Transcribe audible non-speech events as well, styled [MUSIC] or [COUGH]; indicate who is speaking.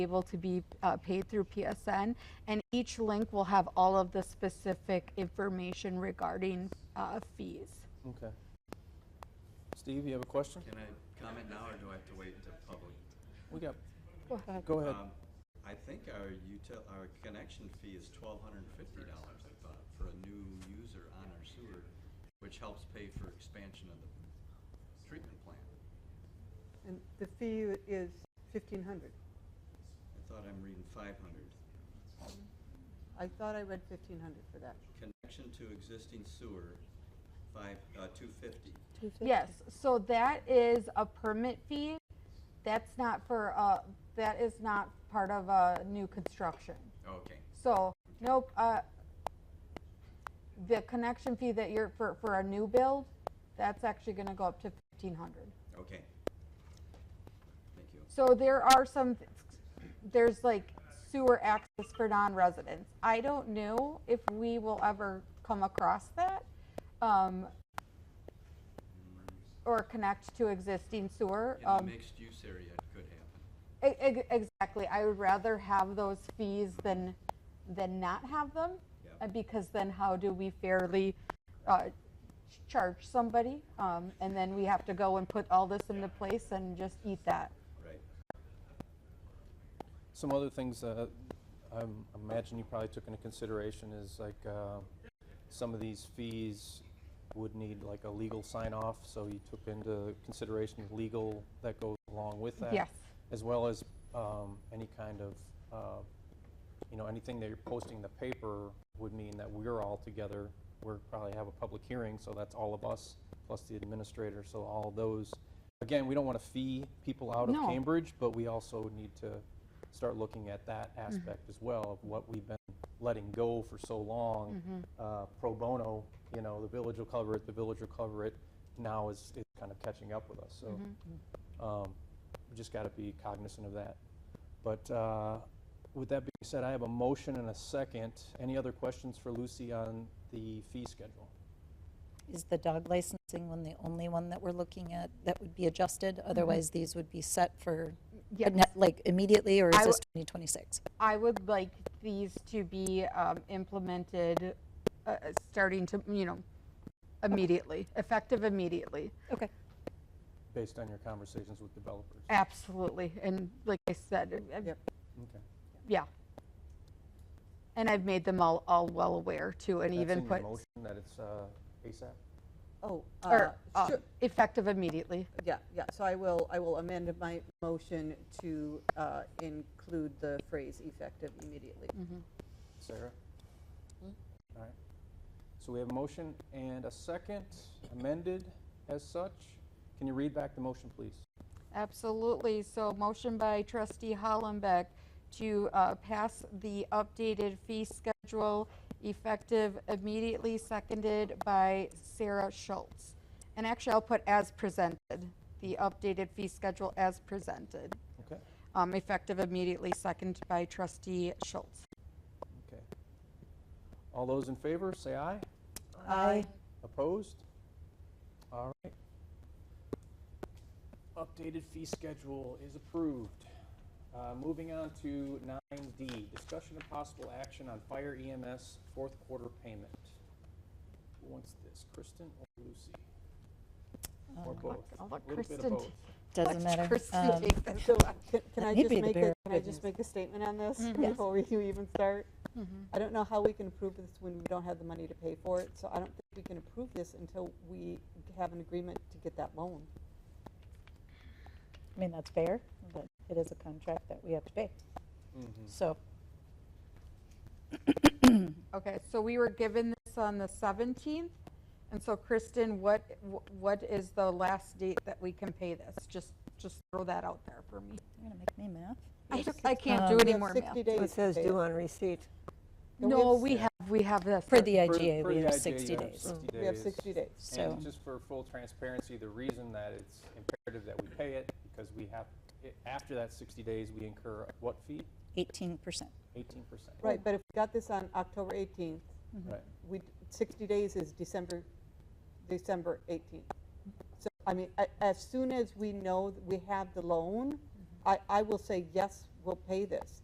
Speaker 1: able to be uh, paid through PSN. And each link will have all of the specific information regarding uh, fees.
Speaker 2: Okay. Steve, you have a question?
Speaker 3: Can I comment now, or do I have to wait until public?
Speaker 2: We got,
Speaker 1: Go ahead.
Speaker 2: go ahead.
Speaker 3: Um, I think our util, our connection fee is twelve hundred and fifty dollars, I thought, for a new user on our sewer, which helps pay for expansion of the treatment plant.
Speaker 4: And the fee is fifteen hundred.
Speaker 3: I thought I'm reading five hundred.
Speaker 4: I thought I read fifteen hundred for that.
Speaker 3: Connection to existing sewer, five, uh, two fifty.
Speaker 1: Yes, so that is a permit fee. That's not for, uh, that is not part of a new construction.
Speaker 3: Okay,
Speaker 1: So, nope, uh, the connection fee that you're, for, for a new build, that's actually gonna go up to fifteen hundred.
Speaker 3: okay. Thank you.
Speaker 1: So there are some, th- there's like sewer access for non-residents. I don't know if we will ever come across that. um, Or connect to existing sewer.
Speaker 3: In the
Speaker 1: um,
Speaker 3: mixed use area, it could happen.
Speaker 1: E- ex- Exactly. I would rather have those fees than, than not have them.
Speaker 3: Yep.
Speaker 1: uh, Because then how do we fairly uh, ch- charge somebody? Um, And then we have to go and put all this into place and just eat that.
Speaker 3: Right.
Speaker 2: Some other things uh, I'm- I imagine you probably took into consideration is like uh, some of these fees would need like a legal sign-off, so you took into consideration legal that goes along with that.
Speaker 1: Yes.
Speaker 2: As well as um, any kind of, uh, you know, anything that you're posting in the paper would mean that we're all together. We're probably have a public hearing, so that's all of us plus the administrator, so all of those. Again, we don't want to fee people out of
Speaker 1: No.
Speaker 2: Cambridge, but we also need to start looking at that aspect as well of what we've been letting go for so long. Uh, Pro bono, you know, the village will cover it, the village will cover it. Now is, is kind of catching up with us, so. Um, we just got to be cognizant of that. But uh, with that being said, I have a motion and a second. Any other questions for Lucy on the fee schedule?
Speaker 5: Is the dog licensing one the only one that we're looking at that would be adjusted? Otherwise, these would be set for,
Speaker 1: Mm-hmm. Yes.
Speaker 5: not- like immediately, or
Speaker 1: I
Speaker 5: is this 2026?
Speaker 1: I would like these to be um, implemented, uh, uh, starting to, you know, immediately, effective immediately.
Speaker 5: Okay.
Speaker 2: Based on your conversations with developers.
Speaker 1: Absolutely. And like I said, I- I-
Speaker 4: Yep.
Speaker 2: Okay.
Speaker 1: yeah. And I've made them all, all well aware too, and
Speaker 2: That's
Speaker 1: even
Speaker 2: in your
Speaker 1: put,
Speaker 2: motion that it's uh, ASAP?
Speaker 4: Oh, uh,
Speaker 1: or uh,
Speaker 4: sure,
Speaker 1: effective immediately.
Speaker 4: yeah, yeah, so I will, I will amend my motion to uh, include the phrase effective immediately.
Speaker 1: Mm-hmm.
Speaker 2: Sarah? All right. So we have a motion and a second amended as such. Can you read back the motion, please?
Speaker 1: Absolutely. So motion by trustee Hollenbeck to uh, pass the updated fee schedule effective immediately, seconded by Sarah Schultz. And actually, I'll put as presented, the updated fee schedule as presented,
Speaker 2: Okay?
Speaker 1: um, effective immediately, seconded by trustee Schultz.
Speaker 2: Okay. All those in favor, say aye.
Speaker 5: Aye.
Speaker 2: Opposed? All right. Updated fee schedule is approved. Uh, Moving on to 9D, discussion of possible action on fire EMS fourth quarter payment. Who wants this, Kristen or Lucy?
Speaker 5: Uh,
Speaker 2: Or both?
Speaker 1: I'll let
Speaker 2: A little bit of
Speaker 1: Kristen
Speaker 2: both.
Speaker 1: t-
Speaker 5: Um, Doesn't matter.
Speaker 1: Kristen
Speaker 5: Um,
Speaker 1: take this.
Speaker 4: So uh, can- can
Speaker 5: Let
Speaker 4: I
Speaker 5: me
Speaker 4: just
Speaker 5: be the
Speaker 4: make,
Speaker 5: bearer
Speaker 4: a-
Speaker 5: of
Speaker 4: can I
Speaker 5: good
Speaker 4: just
Speaker 5: news.
Speaker 4: make a statement on this
Speaker 1: Mhm. Yes.
Speaker 4: before you [LAUGHS] even start?
Speaker 1: Mhm.
Speaker 4: I don't know how we can approve this when we don't have the money to pay for it, so I don't think we can approve this until we have an agreement to get that loan.
Speaker 5: I mean, that's fair, but it is a contract that we have to pay.
Speaker 2: Mhm.
Speaker 5: So,
Speaker 1: Okay, so we were given this on the 17th, and so Kristen, what, wh- what is the last date that we can pay this? Just, just throw that out there for me.
Speaker 5: you're going to make me math?
Speaker 1: I don't- I can't do
Speaker 5: Um,
Speaker 1: any
Speaker 4: have
Speaker 1: more
Speaker 4: 60
Speaker 1: math.
Speaker 4: days
Speaker 6: It
Speaker 4: to
Speaker 6: says
Speaker 4: pay
Speaker 6: due
Speaker 4: it.
Speaker 6: on receipt.
Speaker 1: No, we have, we have this.
Speaker 2: For
Speaker 5: For the
Speaker 2: the-
Speaker 5: IGA,
Speaker 2: for
Speaker 5: we
Speaker 2: the
Speaker 5: have
Speaker 2: IGA,
Speaker 5: 60
Speaker 2: you have
Speaker 5: days.
Speaker 2: 60
Speaker 4: We have
Speaker 2: days.
Speaker 4: 60 days.
Speaker 5: So,
Speaker 2: And just for full transparency, the reason that it's imperative that we pay it, because we have, i- after that 60 days, we incur what fee?
Speaker 5: 18%.
Speaker 2: 18%.
Speaker 4: Right, but if we got this on October 18th,
Speaker 2: Right.
Speaker 4: we, 60 days is December, December 18th. So, I mean, a- as soon as we know that we have the loan, I, I will say, yes, will pay this.